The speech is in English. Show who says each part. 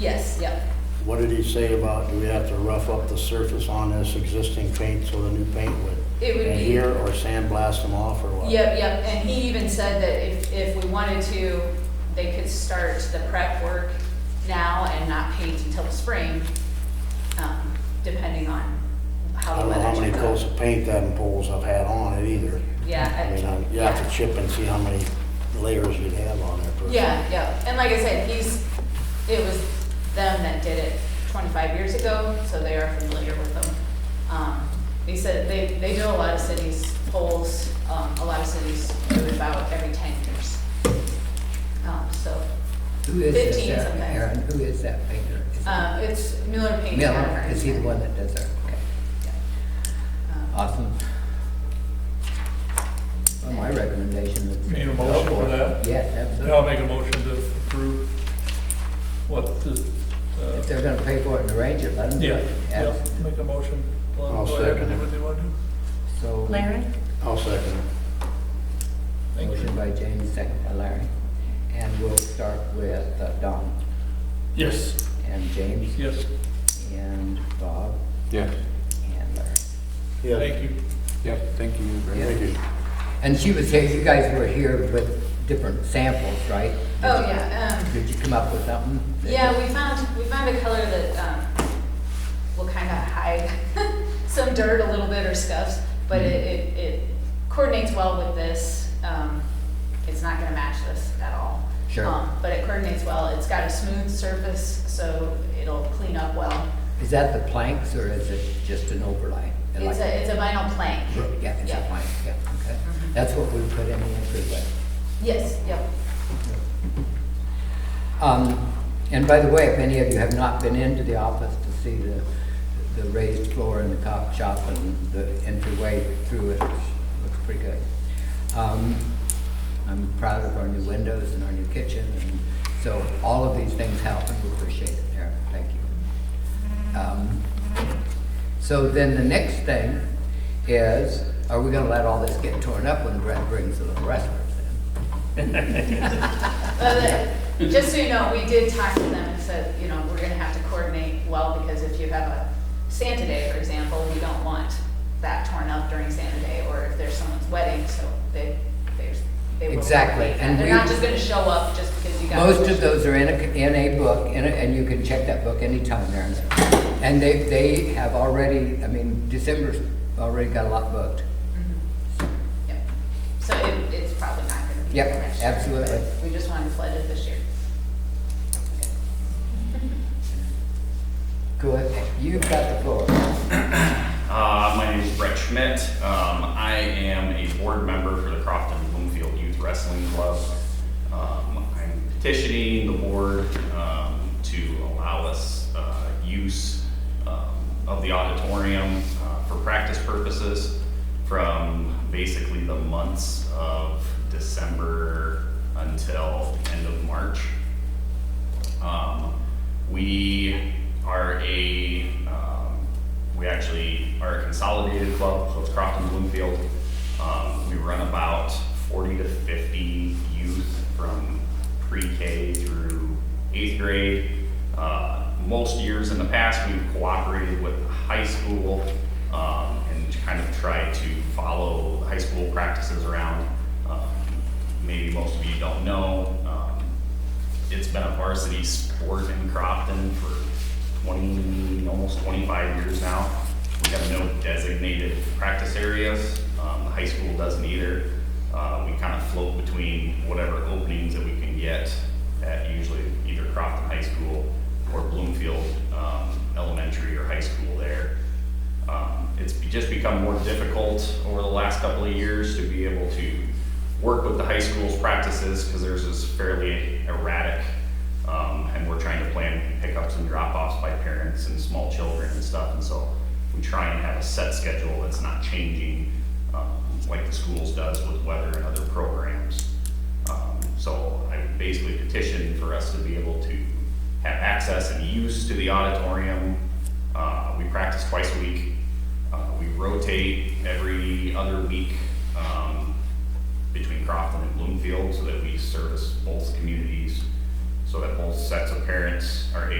Speaker 1: Yes, yep.
Speaker 2: What did he say about, do we have to rough up the surface on this existing paint so the new paint would
Speaker 1: It would be-
Speaker 2: adhere or sandblast them off or what?
Speaker 1: Yep, yep, and he even said that if, if we wanted to, they could start the prep work now and not paint until the spring, um, depending on
Speaker 2: I
Speaker 1: how the
Speaker 2: don't know
Speaker 1: weather.
Speaker 2: how many
Speaker 1: turns out.
Speaker 2: coats of paint them poles have had on it either.
Speaker 1: Yeah, I-
Speaker 2: I mean, I'm- you have to chip and see how many layers you'd have on there. per-
Speaker 1: Yeah, yeah, and like I said, he's, it was them that did it twenty-five years ago, so they are familiar with them. Um, They said they, they know a lot of cities' polls, um, a lot of cities do it about every ten years. Um, so,
Speaker 3: Who is this,
Speaker 1: 15
Speaker 3: uh,
Speaker 1: sometimes.
Speaker 3: Aaron, who is that painter? Is it
Speaker 1: uh, it's Miller Paint.
Speaker 3: Miller, is he the one Uh, that does that? Okay,
Speaker 1: Um,
Speaker 3: awesome. Well, my recommendation would.
Speaker 4: Need a motion for
Speaker 3: Yes,
Speaker 4: that? Yeah, I'll
Speaker 3: absolutely.
Speaker 4: make a motion to approve what the, uh,
Speaker 3: If they're gonna pay for it and arrange it, let them do
Speaker 4: yeah,
Speaker 3: it.
Speaker 4: yeah,
Speaker 3: Abs-
Speaker 4: make a motion. Let 'em
Speaker 2: I'll
Speaker 4: go ahead and
Speaker 2: second
Speaker 4: do
Speaker 2: it.
Speaker 4: what they want to do.
Speaker 3: So,
Speaker 5: Larry?
Speaker 2: I'll second it.
Speaker 4: Thank you.
Speaker 3: motion by James, second by Larry. And we'll start with uh, Don
Speaker 4: Yes,
Speaker 3: and James
Speaker 4: yes,
Speaker 3: and Bob
Speaker 6: Yes,
Speaker 3: and Larry.
Speaker 2: Yeah.
Speaker 4: thank you.
Speaker 6: yep, thank you very much.
Speaker 2: Thank you.
Speaker 3: And she was here, you guys were here with different samples, right?
Speaker 1: Oh, yeah, um,
Speaker 3: Did you come up with something? that-
Speaker 1: Yeah, we found, we found a color that, um, will kind of hide some dirt a little bit or scuffs, but it, it, it coordinates well with this. Um, it's not gonna match this at all.
Speaker 3: Sure.
Speaker 1: Um, But it coordinates well. It's got a smooth surface, so it'll clean up well.
Speaker 3: Is that the planks or is it just an overlay?
Speaker 1: It's a, it's a vinyl plank.
Speaker 3: Yeah, it's a
Speaker 1: yeah. Mm-hmm.
Speaker 3: plank, yeah, okay. That's what we put in the entryway.
Speaker 1: Yes, yep.
Speaker 3: Um, and by the way, if any of you have not been into the office to see the, the raised floor in the cop shop and the entryway through it, it looks pretty good. Um, I'm proud of our new windows and our new kitchen, and so all of these things help, and we appreciate it, Eric, thank you. Um, So then the next thing is, are we gonna let all this get torn up when Brett brings the little wrestlers in?
Speaker 1: Uh, the- Just so you know, we did talk to them and said, you know, we're gonna have to coordinate well, because if you have a Santa Day, for example, we don't want that torn up during Santa Day, or if there's someone's wedding, so they, there's, they will.
Speaker 3: Exactly,
Speaker 1: coordinate that.
Speaker 3: and
Speaker 1: They're
Speaker 3: we-
Speaker 1: not just gonna show up just because you got.
Speaker 3: Most of those are in a, in a book, in a- and you can check that book anytime there. And they, they have already, I mean, December's already got a lot booked.
Speaker 1: Yep. So it, it's probably not gonna be.
Speaker 3: Yep,
Speaker 1: next year,
Speaker 3: absolutely.
Speaker 1: but We just wanted to flood it this year.
Speaker 3: Good, you've got the floor.
Speaker 7: Uh, my name is Brett Schmidt. Um, I am a board member for the Crofton Bloomfield Youth Wrestling Club. Um, I'm petitioning the board um, to allow us uh, use um, of the auditorium uh, for practice purposes from basically the months of December until end of March. Um, we are a, um, we actually are a consolidated club, so it's Crofton Bloomfield. Um, we run about forty to fifty youth from pre-K through eighth grade. Uh, most years in the past, we've cooperated with the high school, um, and kind of tried to follow high school practices around. Um, Maybe most of you don't know, um, it's been a varsity sport in Crofton for twenty, almost twenty-five years now. We have no designated practice areas, um, the high school doesn't either. Uh, we kind of float between whatever openings that we can get at usually either Crofton High School or Bloomfield, um, Elementary or High School there. Um, It's be- just become more difficult over the last couple of years to be able to work with the high school's practices because theirs is fairly erratic. um, And we're trying to plan pickups and drop-offs by parents and small children and stuff. And so we try and have a set schedule that's not changing um, like the schools does with weather and other programs. Um, So I basically petitioned for us to be able to have access and use to the auditorium. Uh, We practice twice a week. Uh, We rotate every other week um, between Crofton and Bloomfield so that we service both communities, so that both sets of parents are